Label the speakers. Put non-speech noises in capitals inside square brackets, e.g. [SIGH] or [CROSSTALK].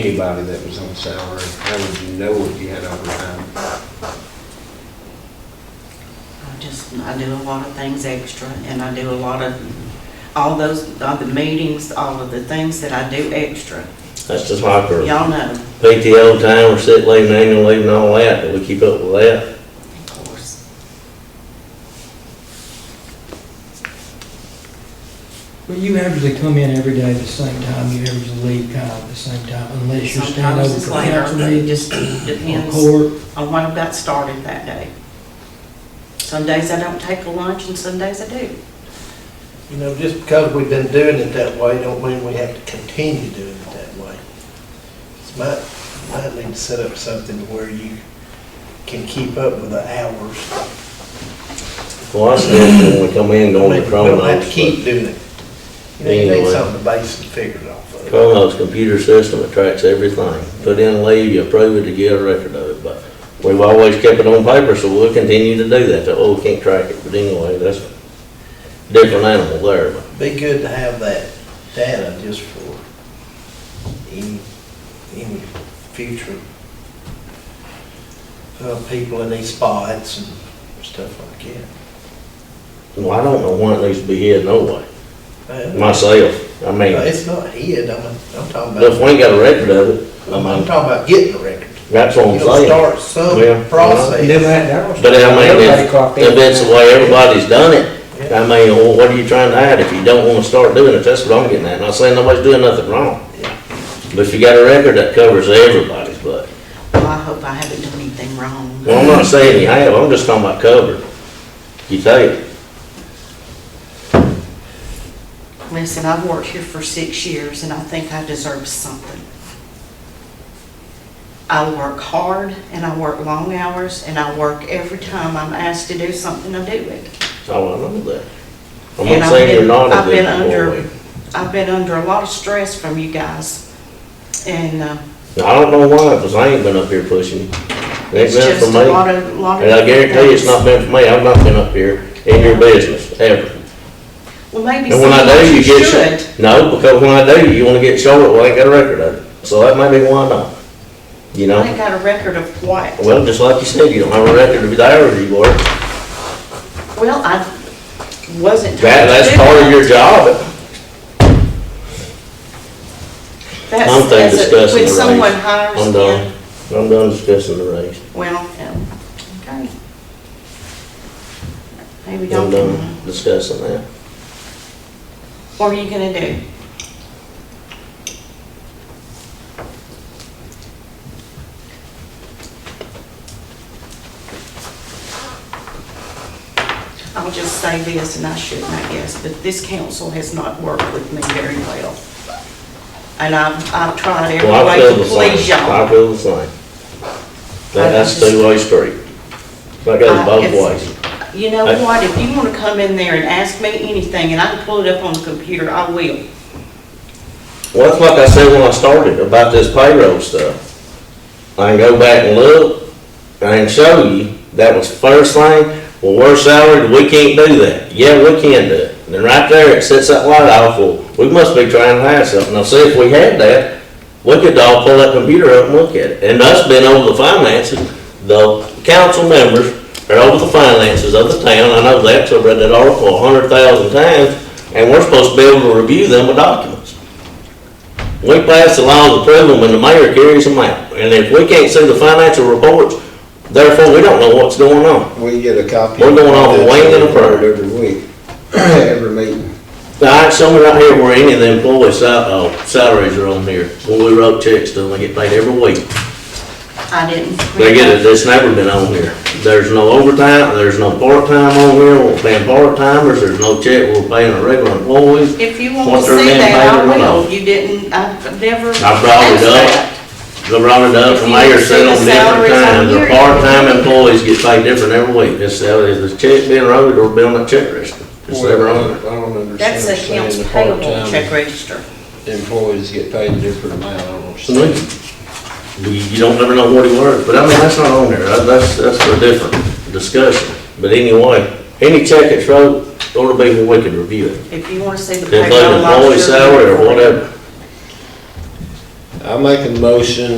Speaker 1: anybody that was on salary, how would you know if you had overtime?
Speaker 2: I just, I do a lot of things extra, and I do a lot of, all those, all the meetings, all of the things that I do extra.
Speaker 3: That's just like our
Speaker 2: Y'all know,
Speaker 3: PTO time, we're sick leave, and annual leave and all that, do we keep up with that?
Speaker 2: of course.
Speaker 4: But you usually come in every day at the same time, you usually leave kind of at the same time, unless you're staying
Speaker 2: Sometimes
Speaker 4: over
Speaker 2: it's
Speaker 4: for
Speaker 2: later,
Speaker 4: council
Speaker 2: but it
Speaker 4: meetings
Speaker 2: just
Speaker 4: or
Speaker 2: depends
Speaker 4: court.
Speaker 2: on when I got started that day. Some days I don't take a lunch, and some days I do.
Speaker 5: You know, just because we've been doing it that way, don't mean we have to continue doing it that way. It's might, might need to set up something where you can keep up with the hours.
Speaker 3: Well, I still, when we come in,
Speaker 5: I
Speaker 3: going
Speaker 5: mean,
Speaker 3: to
Speaker 5: We don't have to
Speaker 3: Chronos,
Speaker 5: keep
Speaker 3: but
Speaker 5: doing it. You know, you need
Speaker 3: Anyway.
Speaker 5: something to base the figures off of.
Speaker 3: Chronos computer system, it tracks everything. Put in a leave, you approve it, you get a record of it, but we've always kept it on paper, so we'll continue to do that, oh, we can't track it, but anyway, that's a different animal there, but.
Speaker 5: Be good to have that data just for any, any future uh, people in these spots and stuff like
Speaker 3: Well, I don't know when it needs to be hid, no way,
Speaker 5: that. Uh,
Speaker 3: myself, I mean,
Speaker 5: No,
Speaker 3: if
Speaker 5: It's not hid, I'm, I'm talking
Speaker 3: we
Speaker 5: about,
Speaker 3: ain't got a record of it, I
Speaker 5: I'm
Speaker 3: mean,
Speaker 5: talking about getting the record.
Speaker 3: that's what I'm
Speaker 5: You know,
Speaker 3: saying.
Speaker 5: start
Speaker 3: Yeah.
Speaker 5: some
Speaker 4: Never
Speaker 5: process.
Speaker 4: had that one.
Speaker 3: But I mean,
Speaker 4: Everybody
Speaker 3: if,
Speaker 4: clocked in.
Speaker 3: if it's the way everybody's done it, I mean, well, what are you trying to hide if you don't wanna start doing it? That's what I'm getting at. Not saying nobody's doing nothing wrong. But if you got a record that covers everybody's butt.
Speaker 2: Well, I hope I haven't done anything wrong.
Speaker 3: Well, I'm not saying you have, I'm just talking about covered. You take it.
Speaker 2: Listen, I've worked here for six years and I think I deserve something. I work hard and I work long hours and I work every time I'm asked to do something, I do it.
Speaker 3: Oh, I know that. I'm
Speaker 2: And
Speaker 3: not
Speaker 2: I've
Speaker 3: saying you're
Speaker 2: been-
Speaker 3: not
Speaker 2: I've
Speaker 3: a
Speaker 2: been
Speaker 3: good
Speaker 2: under-
Speaker 3: employee.
Speaker 2: I've been under a lot of stress from you guys and uh,
Speaker 3: Now, I don't know why, because I ain't been up here pushing you. It ain't
Speaker 2: it's
Speaker 3: been for
Speaker 2: just
Speaker 3: me.
Speaker 2: a lot of, lot of.
Speaker 3: And I guarantee you, it's not
Speaker 2: things.
Speaker 3: been for me. I've not been up here in your business, ever.
Speaker 2: Well, maybe
Speaker 3: And when I
Speaker 2: someone
Speaker 3: do, you get,
Speaker 2: should.
Speaker 3: sh- no, because when I do, you wanna get short, well, I ain't got a record of it, so that may be why not. You
Speaker 2: I ain't
Speaker 3: know,
Speaker 2: got a record of what.
Speaker 3: well, just like you said, you don't have a record of the hours you work,
Speaker 2: Well, I wasn't. told to
Speaker 3: that, that's
Speaker 2: do
Speaker 3: part of
Speaker 2: that.
Speaker 3: your job.
Speaker 2: That's
Speaker 3: I'm thing
Speaker 2: as a-
Speaker 3: discussing the
Speaker 2: When
Speaker 3: raise.
Speaker 2: someone hires
Speaker 3: I'm
Speaker 2: in,
Speaker 3: done, I'm done discussing the raise.
Speaker 2: Well, um, okay. Maybe
Speaker 3: I'm
Speaker 2: don't,
Speaker 3: done discussing that.
Speaker 2: what are you gonna do? I'll just say this, and I shouldn't, I guess, but this council has not worked with me very well. And I've, I've tried every
Speaker 3: Well, I feel
Speaker 2: way to
Speaker 3: the
Speaker 2: please
Speaker 3: same, I
Speaker 2: y'all.
Speaker 3: feel the same. That,
Speaker 2: I
Speaker 3: that's
Speaker 2: just-
Speaker 3: two-way street. That
Speaker 2: I-
Speaker 3: goes both
Speaker 2: it's-
Speaker 3: ways.
Speaker 2: You know
Speaker 3: I-
Speaker 2: what, if you wanna come in there and ask me anything, and I can pull it up on the computer, I will.
Speaker 3: Well, that's like I said when I started about this payroll stuff. I can go back and look, I can show you, that was first thing, well, we're salaried, we can't do that. Yeah, we can do it. And then right there, it sets that light off, well, we must be trying to hide something. Now, see, if we had that, we could all pull that computer up and look at it. And us being over the finances, the council members are over the finances of the town, I know that, so I've read that article a hundred thousand times, and we're supposed to be able to review them with documents. We pass the laws approve them and the mayor carries them out. And if we can't see the financial reports, therefore we don't know what's going on.
Speaker 1: We get a copy.
Speaker 3: We're going off a wing and a prayer.
Speaker 1: Every week, [CLEARS THROAT] every meeting.
Speaker 3: Now, I have somewhere out here where any of the employees' sal- uh, salaries are on here. When we wrote checks to them, they get paid every week.
Speaker 2: I didn't.
Speaker 3: They get it, it's never been on here. There's no overtime, there's no part-time on here, we're paying part-timers, there's no check, we're paying our regular employees.
Speaker 2: If you want
Speaker 3: What
Speaker 2: to
Speaker 3: they're
Speaker 2: see
Speaker 3: being
Speaker 2: that, I
Speaker 3: paid or not.
Speaker 2: will. You didn't, I've never.
Speaker 3: I brought it
Speaker 2: asked
Speaker 3: up.
Speaker 2: that.
Speaker 3: The Robert Doug, the mayor said on different times, the part-time employees get paid different every week. It's, uh, is the check being wrote or being a check register? It's never on
Speaker 1: Well,
Speaker 3: there.
Speaker 1: I don't understand.
Speaker 2: That's
Speaker 1: saying
Speaker 2: accounts
Speaker 1: the
Speaker 2: payable
Speaker 1: part-time
Speaker 2: check register.
Speaker 1: Employees get paid a different amount, I don't
Speaker 3: You,
Speaker 1: understand.
Speaker 3: you don't never know what he works, but I mean, that's not on there. That- That's, that's for a different discussion. But anyway, any check that's wrote, it'll be where we can review it.
Speaker 2: If you want to see the.
Speaker 3: Including
Speaker 2: payroll, I'll
Speaker 3: employee
Speaker 2: show you.
Speaker 3: salary or whatever.
Speaker 1: I I make a motion